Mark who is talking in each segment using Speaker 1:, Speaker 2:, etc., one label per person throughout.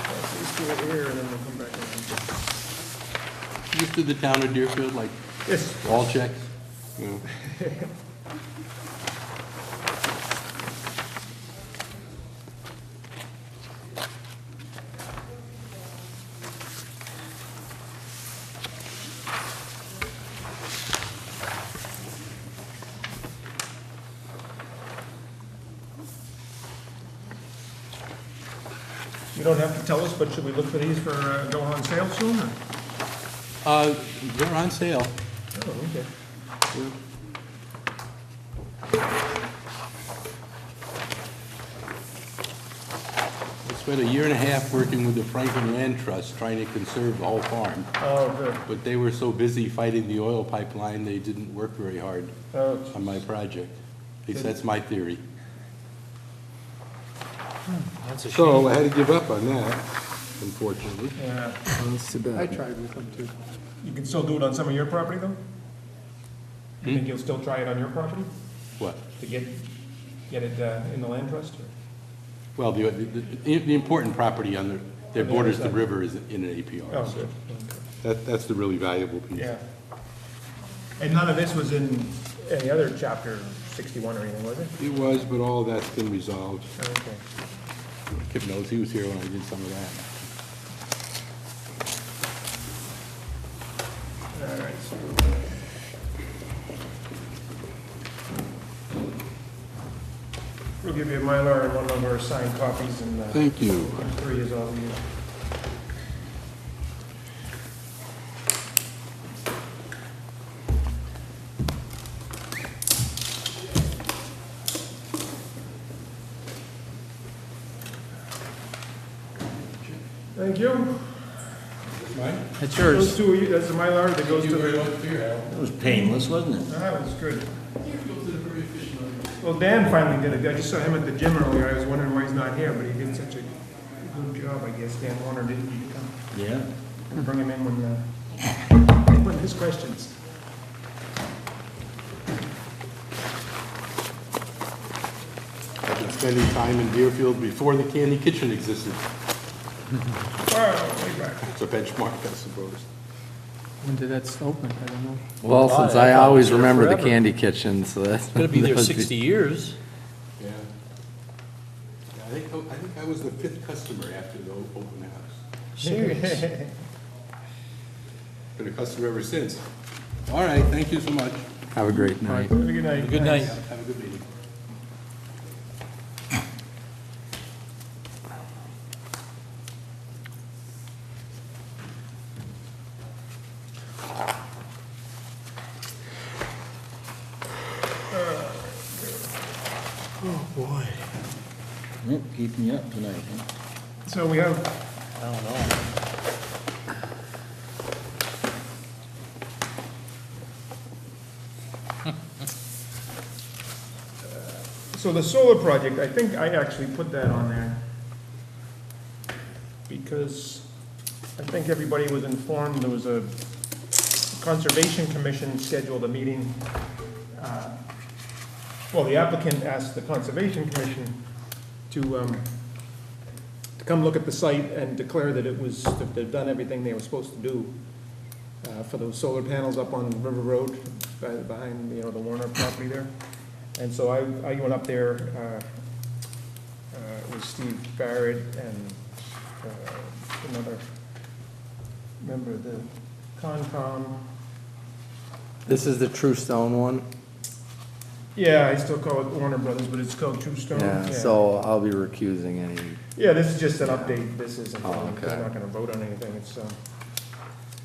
Speaker 1: issue over here, and then we'll come back around.
Speaker 2: Used to the town of Deerfield, like,
Speaker 1: Yes,
Speaker 2: all checks? No.
Speaker 1: you don't have to tell us, but should we look for these for uh, going on sale soon, or?
Speaker 2: Uh, They're on sale.
Speaker 1: Oh, okay.
Speaker 2: I spent a year and a half working with the Franklin Land Trust trying to conserve the whole farm,
Speaker 1: Oh, good.
Speaker 2: but they were so busy fighting the oil pipeline, they didn't work very hard
Speaker 1: Oh,
Speaker 2: on my project. At least that's my theory.
Speaker 3: So I had to give up on that, unfortunately.
Speaker 1: yeah.
Speaker 4: That's too
Speaker 5: I
Speaker 4: bad.
Speaker 5: tried with them too.
Speaker 1: You can still do it on some of your property, though? You think you'll still try it on your property
Speaker 2: What?
Speaker 1: to get, get it uh, in the land trust? or-
Speaker 2: Well, the, the, the important property on the, that borders the river is in an APR,
Speaker 1: Oh,
Speaker 2: so.
Speaker 1: good.
Speaker 3: That, that's the really valuable piece.
Speaker 1: Yeah. And none of this was in any other chapter 61 or anything, was it?
Speaker 3: It was, but all that's been resolved.
Speaker 1: Oh, Okay.
Speaker 2: Kip knows, he was here when I did some of that.
Speaker 1: All right, so We'll give you a Mylar and one of our signed copies and uh,
Speaker 3: Thank you.
Speaker 1: three is all we need. Thank you.
Speaker 4: That's
Speaker 1: Those
Speaker 4: yours.
Speaker 1: two, are you- that's the Mylar that goes to the.
Speaker 6: It was painless, wasn't it?
Speaker 1: That was good. Well, Dan finally did it. I just saw him at the gym earlier. I was wondering why he's not here, but he did such a good job, I guess. Dan Warner didn't need to come.
Speaker 6: Yeah.
Speaker 1: We'll Bring him in when, uh, when his questions.
Speaker 2: I've been spending time in Deerfield before the Candy Kitchen existed.
Speaker 1: Oh, way back.
Speaker 2: It's a benchmark, I suppose.
Speaker 5: When did that open? I don't know.
Speaker 4: Well, since I always remember the Candy Kitchen, so that's.
Speaker 7: Gonna be there
Speaker 4: that was
Speaker 7: 60 years.
Speaker 2: Yeah. I think, I think I was the fifth customer after the o- open house.
Speaker 7: Serious.
Speaker 2: Been a customer ever since. All right, thank you so much.
Speaker 4: Have a great night.
Speaker 1: Have a good night.
Speaker 7: Good night.
Speaker 2: Have a good meeting.
Speaker 6: Nope, keep me up tonight, huh?
Speaker 1: So we have. So the solar project, I think I actually put that on there. Because I think everybody was informed, there was a Conservation Commission scheduled a meeting. uh, Well, the applicant asked the Conservation Commission to, um, to come look at the site and declare that it was, that they've done everything they were supposed to do uh, for those solar panels up on River Road, uh, behind, you know, the Warner property there. And so I, I went up there, uh, uh, with Steve Barrett and uh, another member of the Concom.
Speaker 4: This is the True Stone one?
Speaker 1: Yeah, I still call it Warner Brothers, but it's called Two Stone.
Speaker 4: Yeah, so I'll be recusing any.
Speaker 1: Yeah, this is just an update, this isn't,
Speaker 4: Oh,
Speaker 1: we're
Speaker 4: okay.
Speaker 1: not gonna vote on anything, it's, uh,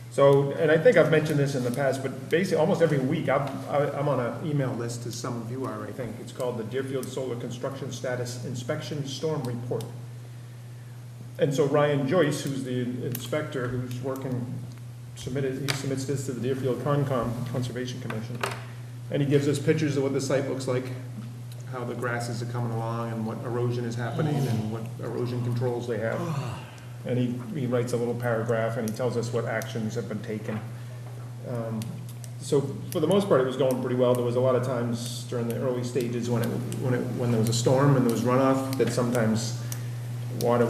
Speaker 1: so, and I think I've mentioned this in the past, but basically, almost every week, I'm, I- I'm on an email list, as some of you are, I think, it's called the Deerfield Solar Construction Status Inspection Storm Report. And so Ryan Joyce, who's the inspector, who's working, submitted, he submits this to the Deerfield Concom, Conservation Commission, and he gives us pictures of what the site looks like, how the grasses are coming along and what erosion is happening and what erosion controls they have. And he, he writes a little paragraph and he tells us what actions have been taken. Um, So for the most part, it was going pretty well. There was a lot of times during the early stages when it, when it, when there was a storm and there was runoff, that sometimes water